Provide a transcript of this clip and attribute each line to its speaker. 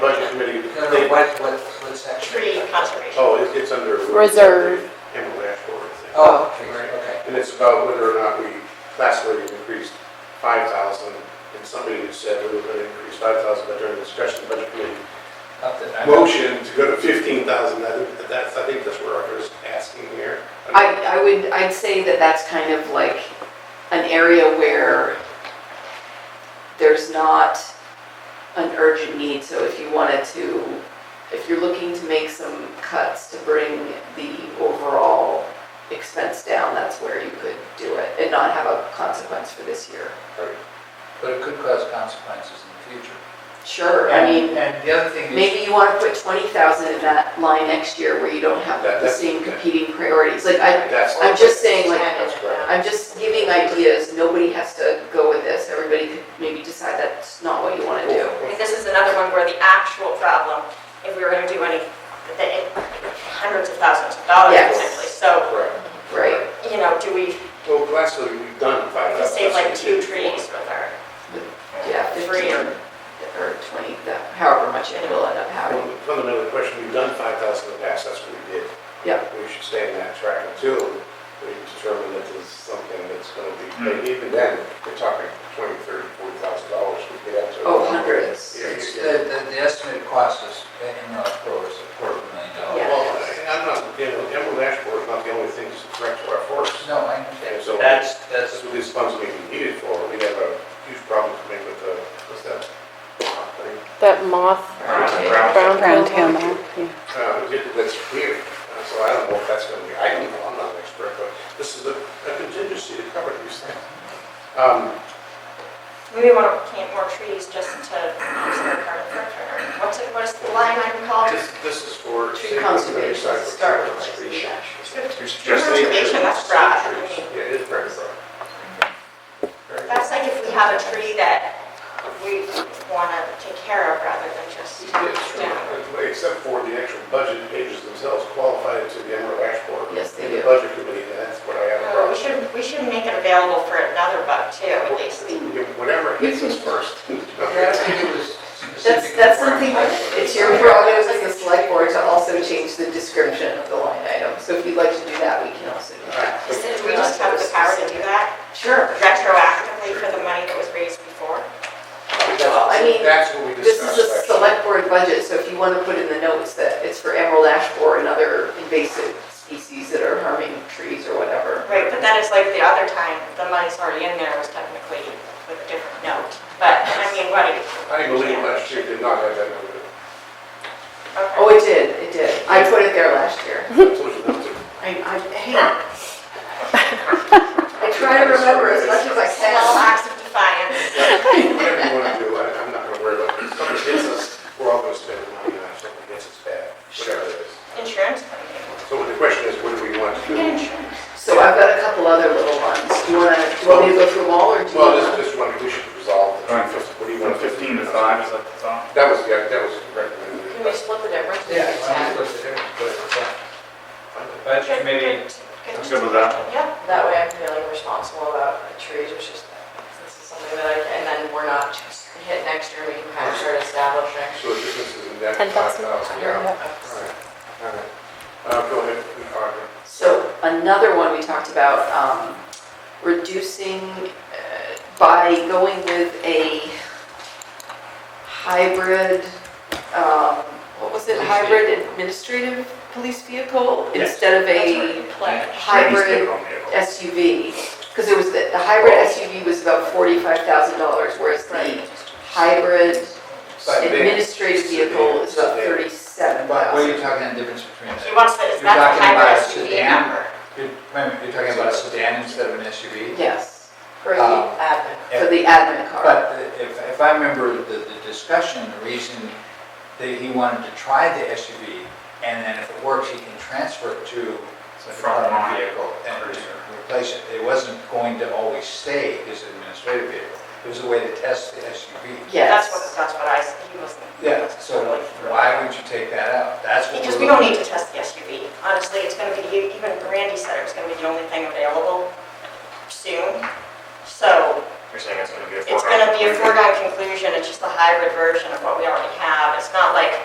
Speaker 1: what, what, what's that?
Speaker 2: tree conservation.
Speaker 3: Oh, it- it's under.
Speaker 4: Reserve.
Speaker 3: Campbell Ashford, I think.
Speaker 1: Oh, tree, okay.
Speaker 3: And it's about whether or not we, last year we increased five thousand, and somebody who said we were gonna increase five thousand, but during the discussion, budget committee
Speaker 1: Up to-
Speaker 3: motion to go to fifteen thousand, I think that that's, I think that's where Arthur's asking here.
Speaker 4: I, I would, I'd say that that's kind of like an area where there's not an urgent need, so if you wanted to, if you're looking to make some cuts to bring the overall expense down, that's where you could do it and not have a consequence for this year.
Speaker 5: But it could cause consequences in the future.
Speaker 4: Sure, I mean,
Speaker 5: And the other thing is,
Speaker 4: maybe you wanna put twenty thousand in that line next year where you don't have
Speaker 3: That-
Speaker 4: the
Speaker 3: that's-
Speaker 4: same competing priorities, like I,
Speaker 3: That's.
Speaker 4: I'm just saying like,
Speaker 3: That's correct.
Speaker 4: I'm just giving ideas, nobody has to go with this, everybody could maybe decide that's not what you want to do.
Speaker 2: I mean, This is another one where the actual problem, if we were gonna do any, the hundreds of thousands of dollars
Speaker 4: Yes.
Speaker 2: potentially. So,
Speaker 3: Correct.
Speaker 4: Right,
Speaker 2: you know, do we,
Speaker 3: Well, last year we've done five
Speaker 2: we
Speaker 3: thousand.
Speaker 2: save like two trees with our.
Speaker 4: yeah,
Speaker 2: Three
Speaker 4: fifteen
Speaker 2: or,
Speaker 4: or, or twenty, that- however much it will end up having.
Speaker 3: Fundamental question, we've done five thousand in the past, that's what we did.
Speaker 4: Yeah.
Speaker 3: We should stay in that track until we determine that there's something that's gonna be, and even then, we're talking twenty, thirty, forty thousand dollars we get up to.
Speaker 4: Oh, hundreds.
Speaker 3: Yeah,
Speaker 5: it's,
Speaker 3: yeah,
Speaker 5: the,
Speaker 3: yeah.
Speaker 5: the- the estimated cost is, in the quarter, is a quarter of a million dollars.
Speaker 4: Yeah.
Speaker 3: Well, I- I'm not, you know, Emerald Ash Borer is not the only thing that's threat to our forests.
Speaker 5: No, I understand.
Speaker 3: And so
Speaker 5: That's,
Speaker 3: that's
Speaker 5: that's,
Speaker 3: what these funds may be needed for. We have a huge problem to make with the, what's that? thing?
Speaker 6: That moth, brown, brown tail moth, yeah.
Speaker 3: Uh, it- That's weird. Uh, So I don't know if that's going to be, I don't know, I'm not an expert, but this is a a contingency to cover these things. Um,
Speaker 2: maybe want to plant more trees just to use their carbon footprint. What's it, what is the line item called?
Speaker 3: This, this is for.
Speaker 4: Tree conservation,
Speaker 3: Recycle,
Speaker 4: start
Speaker 3: tree
Speaker 4: with
Speaker 3: conservation.
Speaker 4: that.
Speaker 3: Just
Speaker 2: Conservation,
Speaker 3: nature,
Speaker 2: that's broad.
Speaker 3: trees. Yeah, it is very broad. Very broad.
Speaker 2: That's like if we have a tree that we want to take care of rather than just down.
Speaker 3: Yeah, Except for the actual budget pages themselves qualified to the Emerald Ash Board.
Speaker 4: Yes, they
Speaker 3: And The
Speaker 4: do.
Speaker 3: budget committee, and that's what I have. a
Speaker 2: Or we
Speaker 3: problem.
Speaker 2: should, we should make it available for another buck too,
Speaker 4: Oh,
Speaker 2: at least.
Speaker 3: Yeah, Whatever hits us first.
Speaker 5: yeah, I think it was
Speaker 4: That's,
Speaker 5: specific.
Speaker 4: that's something, it's your prerogative as the select board to also change the description of the line item, so if you'd like to do that, we can also do that.
Speaker 2: Is it- Do we just have the power to do that
Speaker 4: Sure.
Speaker 2: retroactively for the money that was raised before?
Speaker 4: Well, I mean,
Speaker 3: That's what we
Speaker 4: This
Speaker 3: discussed.
Speaker 4: is a
Speaker 3: last year.
Speaker 4: select board budget, so if you want to put in the notes that it's for emerald ash borer and other invasive species that are harming trees or whatever.
Speaker 2: Right, but that is like the other time, the money's already in there was technically with a different note. But, I mean, what,
Speaker 3: I believe last year did not have that number.
Speaker 4: Oh,
Speaker 2: okay.
Speaker 4: it did, it did. I put it there last year.
Speaker 3: I told you not to.
Speaker 4: I, I, hey. I try to remember as much as I
Speaker 2: Small
Speaker 4: can.
Speaker 2: acts of defiance.
Speaker 3: Whatever you want to do, I- I'm not going to worry about it. If something hits us, we're all going to spend money on it. If Something hits us bad, whatever it is.
Speaker 2: Insurance company.
Speaker 3: So the question is, what do we want to do?
Speaker 2: Get insurance.
Speaker 4: So I've got a couple other little ones. Do you want to, do you want me to go through them all or do you
Speaker 3: Well,
Speaker 4: want?
Speaker 3: this, this one, we should resolve. the
Speaker 7: Right.
Speaker 3: 15. What do you
Speaker 7: From
Speaker 3: want?
Speaker 7: 15 to 5 is like the top.
Speaker 3: That was, yeah, that was recommended.
Speaker 2: Can we split the difference?
Speaker 5: Yeah, I mean, it's the difference, but it's not-
Speaker 7: Budget committee, I'm good with that.
Speaker 2: Yeah,
Speaker 8: That way I'm feeling responsible about the trees, which is, this is something that I, and then we're not just hit next year, we can kind of start establishing.
Speaker 3: So the difference is in that.
Speaker 6: 10,000.
Speaker 3: Yeah. All right. All right. Uh, go ahead, Arthur.
Speaker 4: So another one we talked about, um, reducing uh, by going with a hybrid, um, what was it?
Speaker 5: Police
Speaker 4: Hybrid administrative police vehicle
Speaker 3: Yes.
Speaker 4: instead of
Speaker 2: that's what
Speaker 4: a
Speaker 2: we pledged.
Speaker 4: hybrid SUV. Because it was, the the hybrid SUV was about forty-five thousand dollars, whereas the hybrid
Speaker 3: But they-
Speaker 4: administrative vehicle is about
Speaker 3: They-
Speaker 4: thirty-seven
Speaker 5: But what are
Speaker 4: thousand.
Speaker 5: you talking the difference between that?
Speaker 2: He wants to, is
Speaker 5: You're
Speaker 2: that the
Speaker 5: talking about
Speaker 2: hybrid
Speaker 5: a
Speaker 2: SUV
Speaker 5: sedan?
Speaker 2: number?
Speaker 5: You're- Wait a minute, you're talking about a sedan instead of an SUV?
Speaker 4: Yes, Uh,
Speaker 8: For the
Speaker 5: Um,
Speaker 8: admin.
Speaker 4: for the admin car.
Speaker 5: But if, if I remember the, the discussion, the reason that he wanted to try the SUV, and then if it works, he can transfer it to the front of the vehicle and replace it. It wasn't going to always stay his administrative vehicle. It was a way to test the SUV.
Speaker 4: Yes.
Speaker 2: That's what, that's what I, s- he wasn't.
Speaker 5: Yeah, so why would you take that out? That's what
Speaker 2: Because
Speaker 5: we're
Speaker 2: we don't
Speaker 5: looking
Speaker 2: need to test the SUV. Honestly, it's going to be, even Randy said it was going to be the only thing available soon. So
Speaker 7: You're saying it's gonna be a
Speaker 2: it's going to be a foregone conclusion, it's just a hybrid version of what we already have. It's not like